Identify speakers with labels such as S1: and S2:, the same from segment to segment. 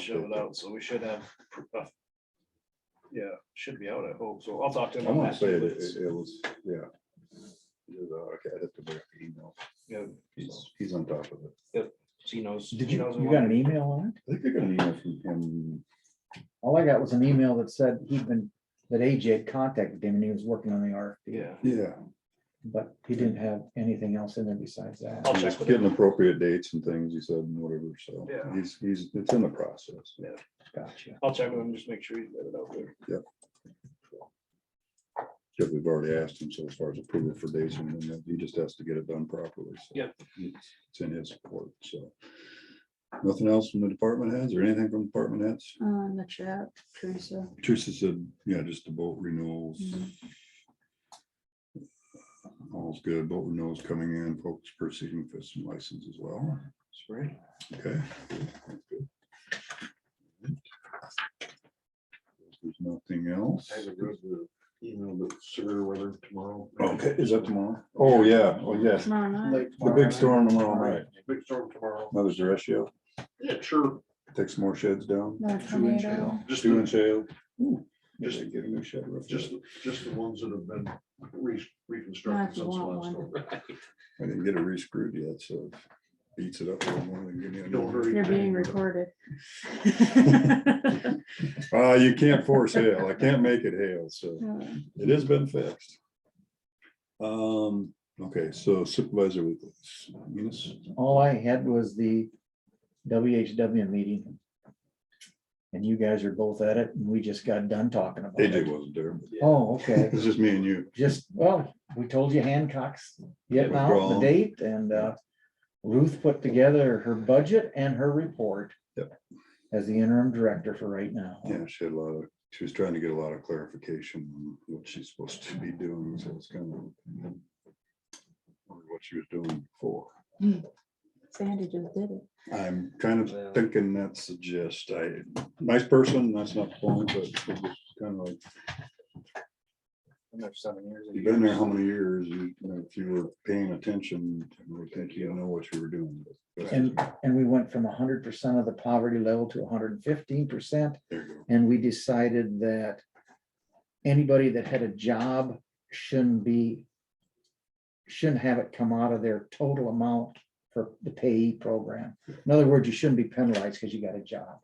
S1: shove it out, so we should have. uh, Yeah, should be out, I hope, so I'll talk to
S2: I
S1: him. on
S2: want to
S1: that,
S2: say
S1: but
S2: that
S1: it's-
S2: it it was, yeah. It was, uh, okay, I'd have to bring up the email.
S1: Yeah,
S2: He's, he's on top of it.
S1: she knows.
S3: Did
S1: she
S3: you,
S1: knows
S3: you
S1: a
S3: got
S1: lot.
S3: an e- email on it?
S2: I think I got an email from him.
S3: All I got was an email that said he'd been, that AJ had contacted him and he was working on the RFP.
S1: Yeah,
S2: Yeah.
S3: But he didn't have anything else in there besides that.
S1: I'll
S2: He was
S1: check with him.
S2: Getting appropriate dates and things, he said, and whatever, so.
S1: Yeah.
S2: He's, he's, it's in the process.
S3: Gotcha.
S1: I'll check with him, just make sure he's got it out there.
S2: Because we've already asked him, so as far as approval for dates, and then he just has to get it done properly. so.
S1: Yep.
S2: It's in his support, so. Nothing else from the department heads or anything from department heads?
S4: Uh, in the chat, Teresa.
S2: Teresa said, yeah, just the boat renewals. All's good, boat renewals coming in, folks proceeding for some license as well.
S1: Spring.
S2: Okay. that's good. If There's nothing else.
S5: I haven't read the email that Sir Weather tomorrow.
S2: Okay, is that tomorrow? Oh, yeah, oh, yes,
S4: Tomorrow night.
S2: the big storm tomorrow night.
S5: Big storm tomorrow.
S2: Mother's derecho,
S5: Yeah, sure.
S2: take some more sheds down.
S4: No tornado.
S5: Just,
S2: Two and
S5: the-
S2: shale.
S5: Just-
S2: Just get a new shed roof.
S5: just, just the ones that have been re-
S4: Not if
S5: reconstructed
S4: you
S5: since
S4: want
S5: last
S4: one.
S5: storm.
S2: I didn't get it re-screwed yet, so beats it up a little more. give me a new
S5: Don't
S2: one.
S5: hurry.
S4: You're being recorded.
S2: Uh, you can't force hail. I can't make it hail, so
S4: Uh,
S2: it has been fixed. Um, okay, so supervisor weeklies. Eunice?
S3: All I had was the WHW meeting. And you guys are both at it and we just got done talking about
S2: AJ
S3: it.
S2: wasn't there.
S3: Oh, okay.
S2: It's just me and you.
S3: Just, well, we told you Hancock's getting out the
S2: Withdrawal.
S3: date and uh, Ruth put together her budget and her report.
S2: Yep.
S3: As the interim director for right now.
S2: Yeah, she had a lot of, she was trying to get a lot of clarification on what she's supposed to be doing, so it's kind of or what she was doing before.
S4: Sandy just did it.
S2: I'm kind of thinking that's the gist. I, nice person, that's not the point, but it's just kind of like,
S1: Been there seven years.
S2: you've been there how many years? You you know, If you were paying attention, I would think you know what you were doing. but-
S3: And, and we went from hundred percent of the poverty level to hundred and fifteen percent,
S2: There you go.
S3: and we decided that anybody that had a job shouldn't be, shouldn't have it come out of their total amount for the payee program. In other words, you shouldn't be penalized because you got a job.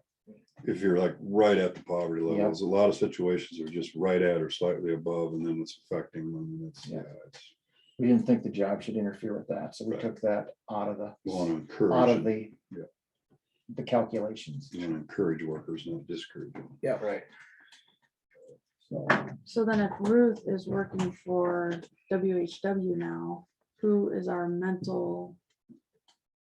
S2: If you're like right at the poverty
S3: Yep.
S2: levels, a lot of situations are just right at or slightly above, and then it's affecting them, and it's, yeah,
S3: Yeah.
S2: it's.
S3: We didn't think the job should interfere with that, so we
S2: Right.
S3: took that out of the,
S2: Want to encourage.
S3: out of the
S2: Yeah.
S3: the calculations.
S2: You want to encourage workers, not discourage them.
S1: Right.
S3: So
S4: So then if Ruth is working for WHW now, who is our mental?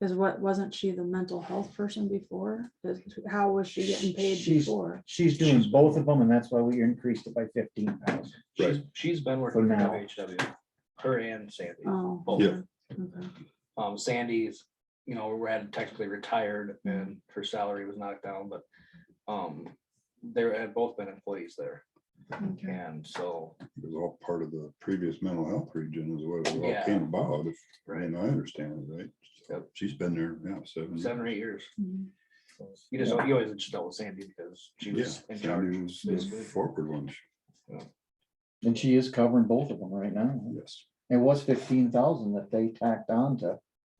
S4: Is what, wasn't she the mental health person before? Is- How was she getting paid
S3: She's-
S4: before?
S3: she's doing both of them, and that's why we increased it by fifteen thousand.
S1: She's, she's been working
S3: For
S1: for
S3: now.
S1: WHW, her and Sandy.
S4: Oh.
S1: Both.
S2: Yeah.
S4: okay.
S1: Um, Sandy's, you know, we had technically retired and her salary was knocked down, but, um, they had both been employees there.
S4: Okay.
S1: And so,
S2: It was all part of the previous mental health region is what it all
S1: Yeah.
S2: came about, if,
S1: Right.
S2: and I understand it, right?
S1: Yep.
S2: She's been there now, seven.
S1: seven or eight years.
S4: Mhm.
S1: You just, you always just dealt with Sandy because she was in charge.
S2: years.
S1: basically.
S2: Forward one,
S3: And she is covering both of them right now.
S2: yes,
S3: It was fifteen thousand that they tacked on to,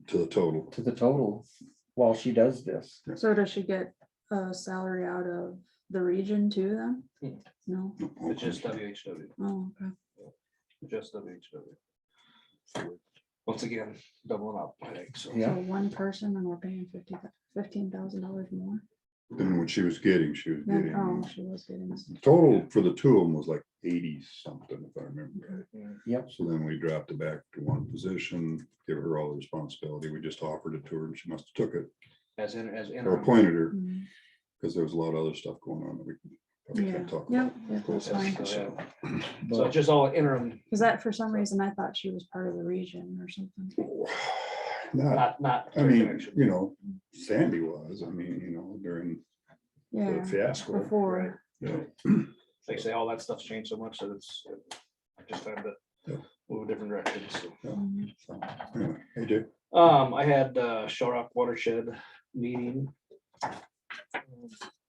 S2: to the total.
S3: to the total while she does this.
S4: So does she get a salary out of the region too then?
S1: Hmm.
S4: No?
S1: It's just uh, WHW,
S4: Oh, okay.
S1: just WHW. Once again, doubling up, I think, so.
S4: So
S3: Yeah.
S4: one person and we're paying fifty, fifteen thousand dollars more.
S2: Than what she was getting, she was
S4: Then,
S2: getting,
S4: oh, she was getting this.
S2: total for the two of them was like eighty something, if I remember right.
S3: Yep.
S2: So then we dropped it back to one position, give her all the responsibility, we just offered it to her, and she must have took it,
S1: As in, as in.
S2: or appointed her.
S4: Mm,
S2: Because there was a lot of other stuff going on that we probably
S4: Yeah,
S2: can't talk
S4: yep,
S2: about.
S4: yep, that's fine.
S2: So,
S1: So it's
S3: But
S1: just all interim,
S4: Cause that, for some reason, I thought she was part of the region or something.
S2: Not,
S1: not, not.
S2: I
S1: their
S2: mean,
S1: connection.
S2: you know, Sandy was, I mean, you know, during
S4: Yeah,
S2: the fiasco.
S1: Right.
S4: before.
S2: you know,
S1: Like I say, all that stuff's changed so much that it's it- just time to
S2: Yeah.
S1: move a different direction. so.
S4: Mhm.
S2: so, anyway, Hey, Jay,
S1: Um, I had uh Shorrock Watershed meeting.